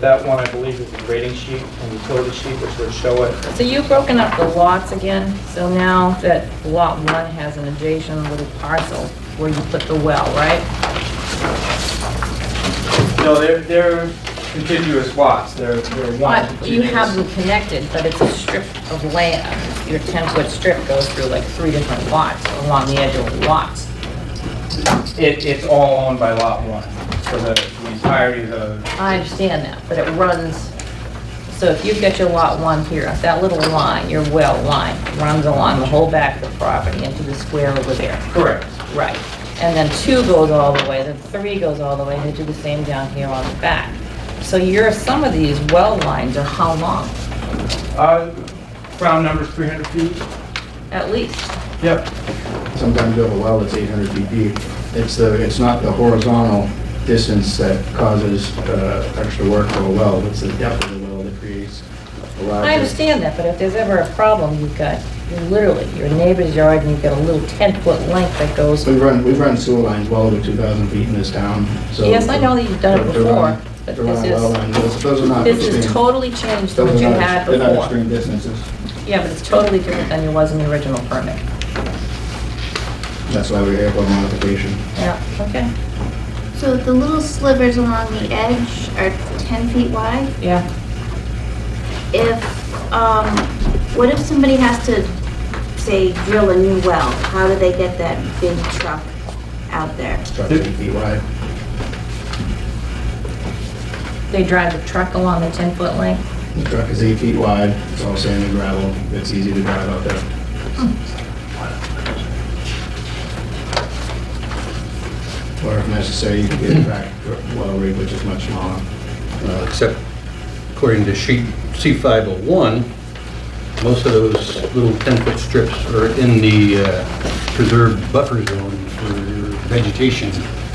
That one, I believe, is the rating sheet and utility sheet, which would show it. So you've broken up the lots again, so now that lot one has an adjacent little parcel where you put the well, right? No, they're, they're contiguous lots, they're, they're one But you contiguous. have them connected, but it's a strip of land. Your 10-foot strip goes through like three different lots along the edge of the lots. It, it's all owned by lot one, so the the entirety of the, I understand that, but it runs, so if you've got your lot one here, that little line, your well line, runs along the whole back of the property into the square over there. correct. Right, and then two goes all the way, then three goes all the way, they do the same down here on the back. So your, some of these well lines are how long, Uh, Round number's 300 feet? at least? Yep. Sometimes you have a well that's 800 feet deep. It's the, it's not the horizontal distance that causes uh, extra work for a well, it's the depth of the well that creates a lot of... I understand that, but if there's ever a problem, you've got, you literally, your neighbor's yard, and you've got a little 10-foot length that goes, We've run, we've run sewer lines well over 2,000 feet in this town, so... Yes, I know that you've done it To run- before, but to run this a well is- line, Those those are not... this is extreme- totally changed from those what are you not- had They're not extreme before. distances. Yeah, but it's totally different than it was in the original permit. That's why we're here for modification. Yeah, okay, So the little slivers along the edge are 10 feet wide. yeah. If, um, what if somebody has to, say, drill a new well? How do they get that big truck out there? It's about 10 feet wide. They drive the truck along the 10-foot length? The truck is eight feet wide, it's all sand and gravel, it's easy to drive out there. Or if necessary, you can get a tractor well rig, which is much smaller. Uh, except according to sheet C501, most of those little 10-foot strips are in the uh, preserved buffer zone for vegetation.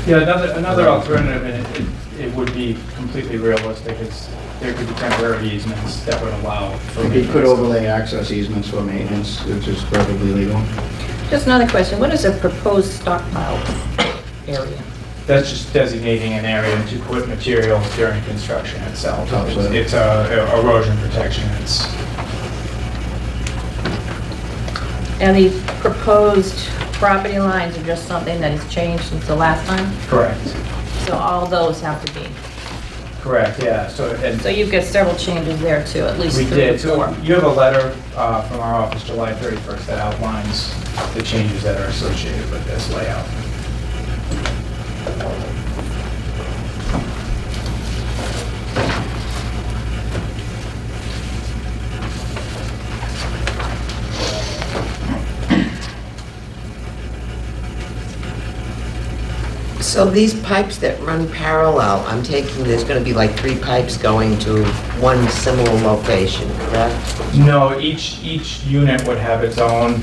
Yeah, another, another alternative, and it, it would be completely realistic, is there could be temporary easements that would allow. for You could maintenance. overlay access easements for maintenance, which is perfectly legal. Just another question, what is a proposed stockpile area? That's just designating an area to put materials during construction itself. Topsoil. It's uh, erosion protection, it's, And these proposed property lines are just something that has changed since the last time? correct, So all those have to be. correct, yeah, so, and So you've got several changes there too, at least we three or did, so four. you have a letter uh, from our office July 31st that outlines the changes that are associated with this layout. So these pipes that run parallel, I'm taking, there's gonna be like three pipes going to one similar location, correct? No, each, each unit would have its own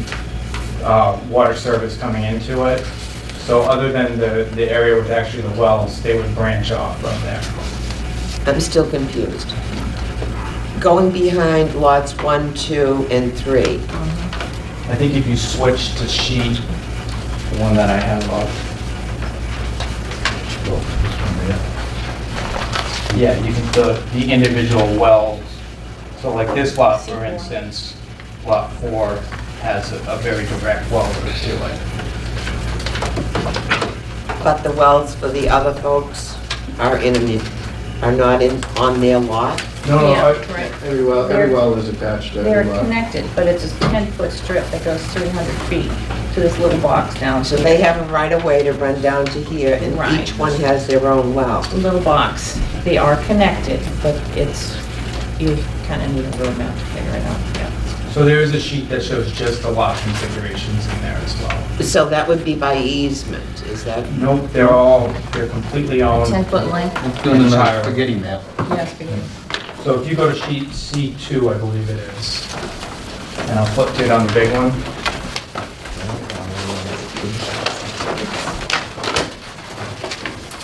uh, water service coming into it. So other than the, the area with actually the wells, they would branch off from there. I'm still confused. Going behind lots one, two, and three, I think if you switch to sheet, the one that I have up. Oh, Yeah, you can, the, the individual wells, so like this lot, for instance, lot four has a a very direct well to it. but the wells for the other folks are in, the- are not in, on their lot? No, no, Yeah, I- right. Every well, every well is attached to They're every well. connected, but it's a 10-foot strip that goes 300 feet to this little box down, So they have a right of way to run down to here, and Right. each one has their own well. little box. They are connected, but it's, you kind of need a roadmap to figure it out, yeah. so there is a sheet that shows just the lot configurations in there as well. So that would be by easement, is that? Nope, they're all, they're completely owned. 10-foot length, It's doing the Entire. spaghetti map. yes, we do. So if you go to sheet C2, I believe it is, and I'll flip to it on the big one.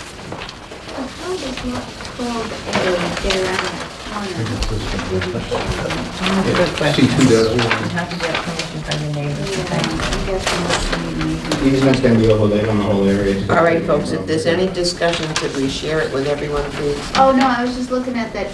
How does lot 12A get around that corner? That's a good question. C2.01. You have to get permission from your neighbors, I think. Easements can be overlaid on the whole area. All right, folks, if there's any discussion, could we share it with everyone, please? Oh, no, I was just looking at that